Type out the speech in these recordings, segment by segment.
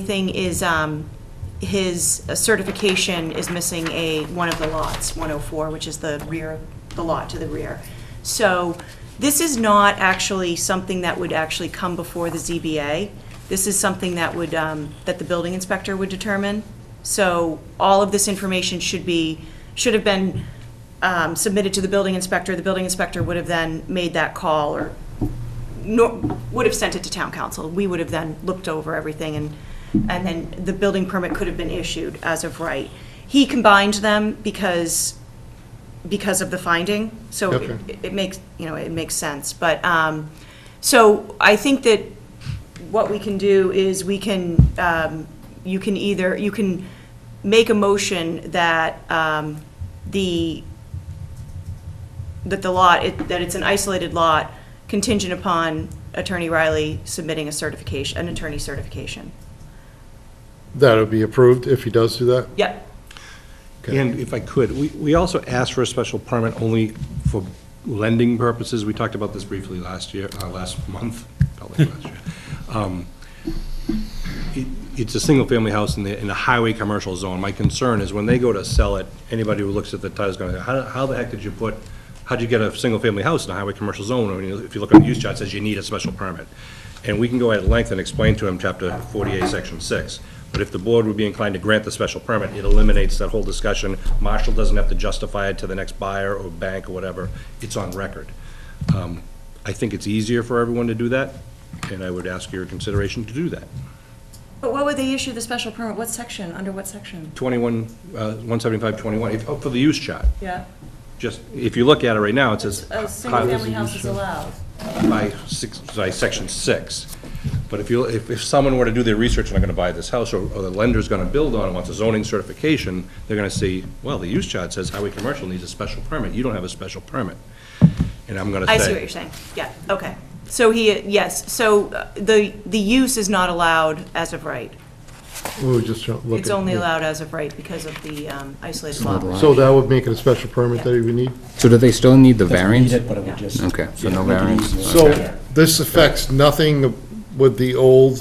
thing is, um, his certification is missing a, one of the lots, 104, which is the rear, the lot to the rear. So this is not actually something that would actually come before the ZBA. This is something that would, um, that the building inspector would determine. So all of this information should be, should have been um, submitted to the building inspector. The building inspector would have then made that call or nor, would have sent it to town council. We would have then looked over everything and, and then the building permit could have been issued as of right. He combined them because, because of the finding, so it- Okay. it makes, you know, it makes sense. But, um, so I think that what we can do is we can, um, you can either, you can make a motion that, um, the that the lot, it- that it's an isolated lot contingent upon Attorney Riley submitting a certification, an attorney certification. That'll be approved if he does do that? Yep, Okay. And if I could, we, we also asked for a special permit only for lending purposes. We talked about this briefly last year, uh, last month, felt like last year. Um, it- It's a single-family house in the, in a highway commercial zone. My concern is when they go to sell it, anybody who looks at the title is gonna, go, how, how the heck did you put, how'd you get a single-family house in a highway commercial zone? When you- If you look on the use chart, it says you need a special permit. And we can go at length and explain to them chapter forty-eight, section six. But if the board would be inclined to grant the special permit, it eliminates that whole discussion. Marshall doesn't have to justify it to the next buyer or bank or whatever. It's on record. Um, I think it's easier for everyone to do that, and I would ask your consideration to do that. But what would they issue the special permit? What section? Under what section? 21, uh, 175, 21, if- oh, for the use chart. Yeah. Just, if you look at it right now, it says. A single-family house is allowed. By six, by section six. But if you, if, if someone were to do their research, and I'm gonna buy this house, or, or the lender's gonna build on it, wants a zoning certification, they're gonna see, well, the use chart says highway commercial needs a special permit, you don't have a special permit. And I'm gonna say. I see what you're saying. Yeah, okay. So he, yes, so uh, the, the use is not allowed as of right. We were just trying to look. It's at- only yeah. allowed as of right because of the um, isolated lot. So that would make it a special permit that he would need? So do they still need the Doesn't variance? need it, but it would just- Okay, so no Yeah, make it variance. easier. So this affects nothing with the old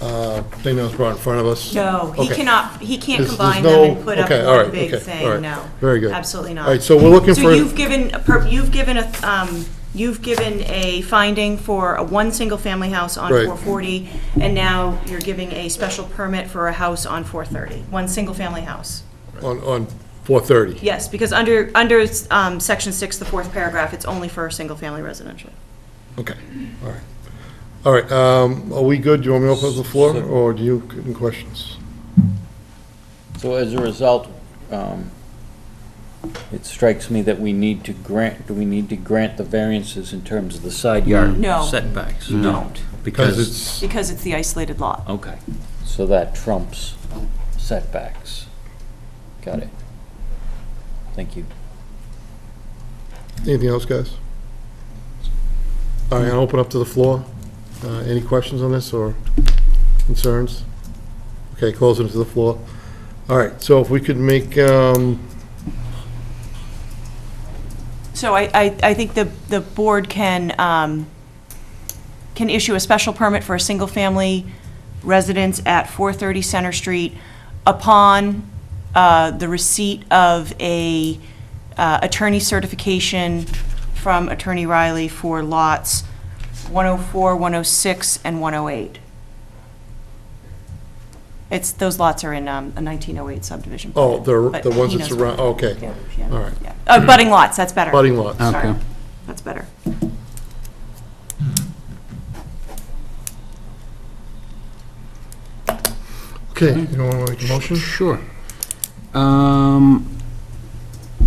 uh, thing that was brought in front of us? No, he Okay. cannot, he can't There's- combine there's them no- and put up okay, all one right, big okay, all thing, right. no. Very good. Absolutely not. All right, so we're looking So for- you've given, a per- you've given a, um, you've given a finding for a one single-family house on Right. 440, and now you're giving a special permit for a house on 430, one single-family house. On, on 430? Yes, because under, under um, Section 6, the fourth paragraph, it's only for a single-family residential. Okay, all right. All right, um, are we good? Do you want me to open up the floor, or do you, any questions? So as a result, um, it strikes me that we need to grant, do we need to grant the variances in terms of the side yard No. Mm. setbacks? You don't, Because it's, because it's the isolated lot. Okay, so that trumps setbacks. Got it. Thank you. anything else, guys? All right, I'll open up to the floor. Uh, Any questions on this, or concerns? Okay, close it to the floor. All right, so if we could make, um, So I, I, I think the, the board can, um, can issue a special permit for a single-family residence at 430 Center Street upon uh, the receipt of a uh, attorney certification from Attorney Riley for lots 104, 106, and 108. It's, those lots are in um, a 1908 subdivision. plan, oh, the, but the ones he that's knows where- around, okay. Uh, Yeah, yeah, All right. yeah. Uh, Budding lots, that's better. Budding lots. Sorry. Okay. That's better. Okay, you don't want to make a motion? Sure. Um,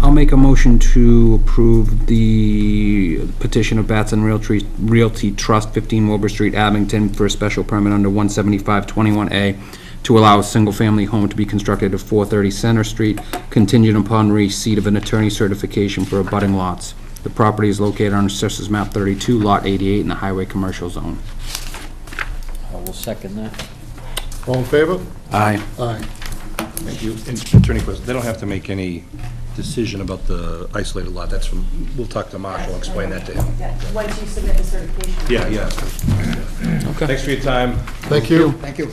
I'll make a motion to approve the petition of Batson Realty, Realty Trust, 15 Wilbur Street, Abington, for a special permit under 17521A to allow a single-family home to be constructed at 430 Center Street, contingent upon receipt of an attorney certification for abutting lots. The property is located on Assessors Map 32, Lot 88, in the Highway Commercial Zone. I will second that. All in favor? Aye. Aye. And Attorney Quist, they don't have to make any decision about the isolated lot, that's from, we'll talk to Mark, we'll explain that to him. Yeah, Once you submit the certification. Yeah, yeah. Thanks for your time. Thank you. Thank you.